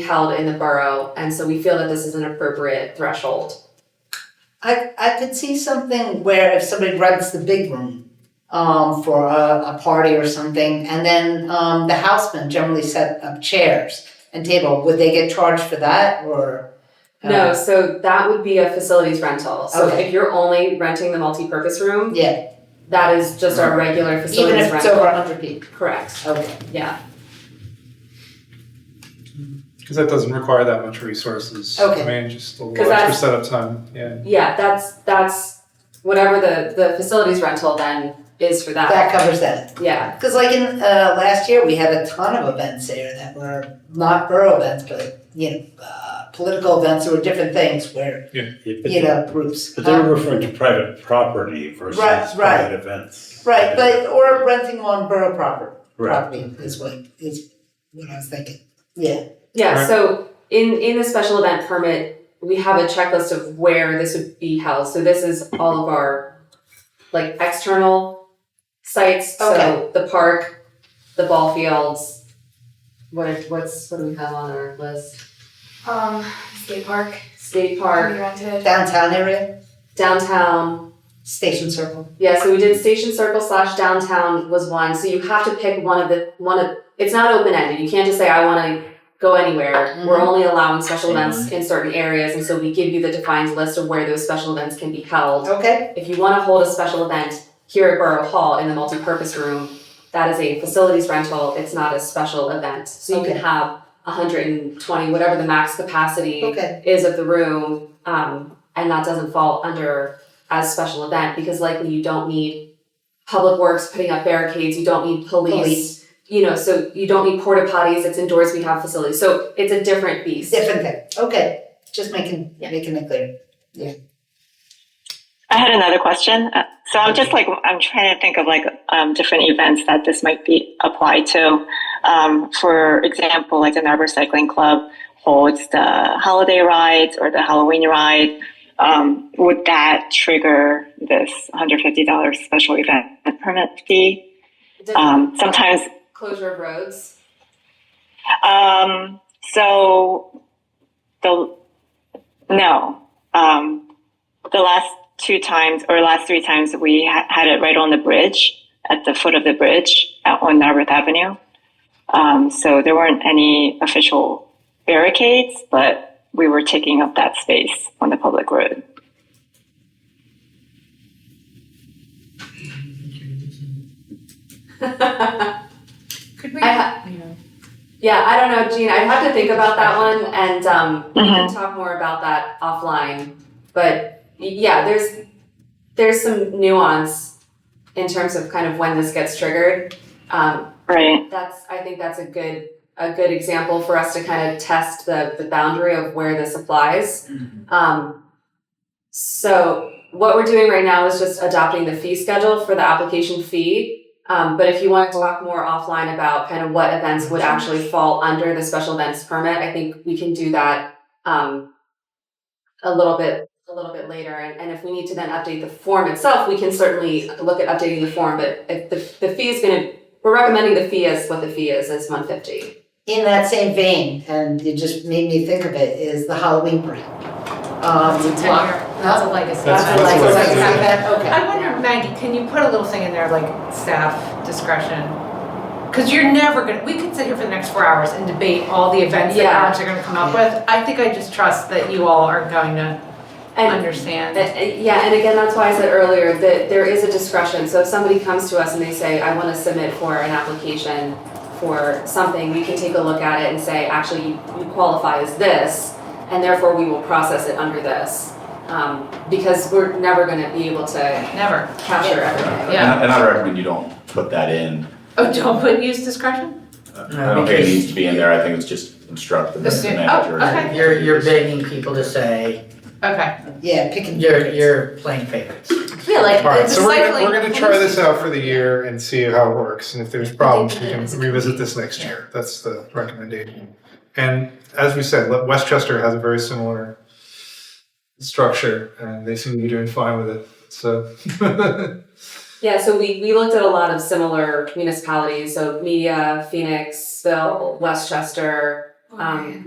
held in the borough, and so we feel that this is an appropriate threshold. I, I could see something where if somebody rents the big room um, for a, a party or something, and then um, the housemen generally set up chairs and table, would they get charged for that or? Uh, No, so that would be a facilities rental. So Okay. if you're only renting the multi-purpose room, Yeah, that is just our regular even facilities if it's rental. over hundred people, Correct. okay. Yeah. Because that doesn't require that much resources. Okay. I mean, just a little 'Cause extra that's- setup time, yeah. Yeah, that's that's whatever the the facilities rental then is for that. That covers that. Yeah. Because like in, uh, last year, we had a ton of events there that were not borough events, but, you know, uh, political events or different things where, Yeah, but you they- know, groups. But they Um, were referring to private property versus Right, right. private events. Right, but, or renting on borough property. Right. property is what is what I was thinking. Yeah. Yeah, Right. so in in the special event permit, we have a checklist of where this would be held. So this is all of our like external sites, so Okay. the park, the ball fields. What if- what's what do we have on our list? Um, skate park. State park, We rented. Downtown area, downtown. station circle. Yeah, so we did station circle slash downtown was one. So you have to pick one of the one of it's not open ended. You can't just say I want to go anywhere. We're Mhm. only allowing special events in certain areas, and so we give you the defined list of where those special events can be held. Okay. If you want to hold a special event here at Borough Hall in the multipurpose room, that is a facilities rental. It's not a special event, so you Okay. can have 120, whatever the max capacity Okay. is of the room, um, and that doesn't fall under as special event because likely you don't need public works putting up barricades, you don't need police, Police. you know, so you don't need porta potties. It's indoors. We have facilities, so it's a different beast. Different thing. Okay. Just making Yeah. making it clear. I had another question. Uh, So I'm just like, I'm trying to think of like um, different events that this might be applied to. Um, for example, like the Narber Cycling Club holds the holiday rides or the Halloween ride. Um, would that trigger this $150 special event permit fee? Different Um, sometimes closure of roads. um, so the no, um, the last two times or last three times we ha- had it right on the bridge at the foot of the bridge out on Narberth Avenue. Um, so there weren't any official barricades, but we were taking up that space on the public road. yeah, Could we? I ha- Yeah. I don't know, Gene. I'd have to think about that one, and um, we can talk more about that offline. But y- yeah, there's there's some nuance in terms of kind of when this gets triggered. Um, Right. That's, I think that's a good, a good example for us to kind of test the, the boundary of where this applies. Um, so what we're doing right now is just adopting the fee schedule for the application fee. Um, but if you want to talk more offline about kind of what events would actually fall under the special events permit, I think we can do that, um, a little bit, a little bit later. And, and if we need to then update the form itself, we can certainly look at updating the form, but if the, the fee is going to we're recommending the fee is what the fee is, is one fifty. In that same vein, and you just made me think of it, is the Halloween parade. Um, It's a ten-year- That's a legacy. That's- I like, what like like I said. that, okay. I wonder, Maggie, can you put a little thing in there like staff discretion? Because you're never gonna, we could sit here for the next four hours and debate all the events that Yeah. parents are gonna come up with. I think I just trust that you all are going to And, understand. uh, uh, yeah, and again, that's why I said earlier that there is a discretion, so if somebody comes to us and they say, I wanna submit for an application for something, we can take a look at it and say, actually, you you qualify as this, and therefore we will process it under this. Um, because we're never gonna be able to Never, capture everything. Yeah. And I- and I recommend you don't put that in. oh, don't put use discretion? I don't think it needs to be in there. I think it's just instruct the Assume- the manager. oh, okay. You're, you're begging people to say, Okay. Yeah, pick and you're, you're playing favorites. Yeah, like All right, so we're gonna, cycling- we're gonna try this out for the year and see how it works, and if there's problems, we can revisit this next year. That's the recommendation. And as we said, Le- Westchester has a very similar structure, and they seem to be doing fine with it, so. Yeah, so we, we looked at a lot of similar municipalities, so Media, Phoenixville, Westchester, um,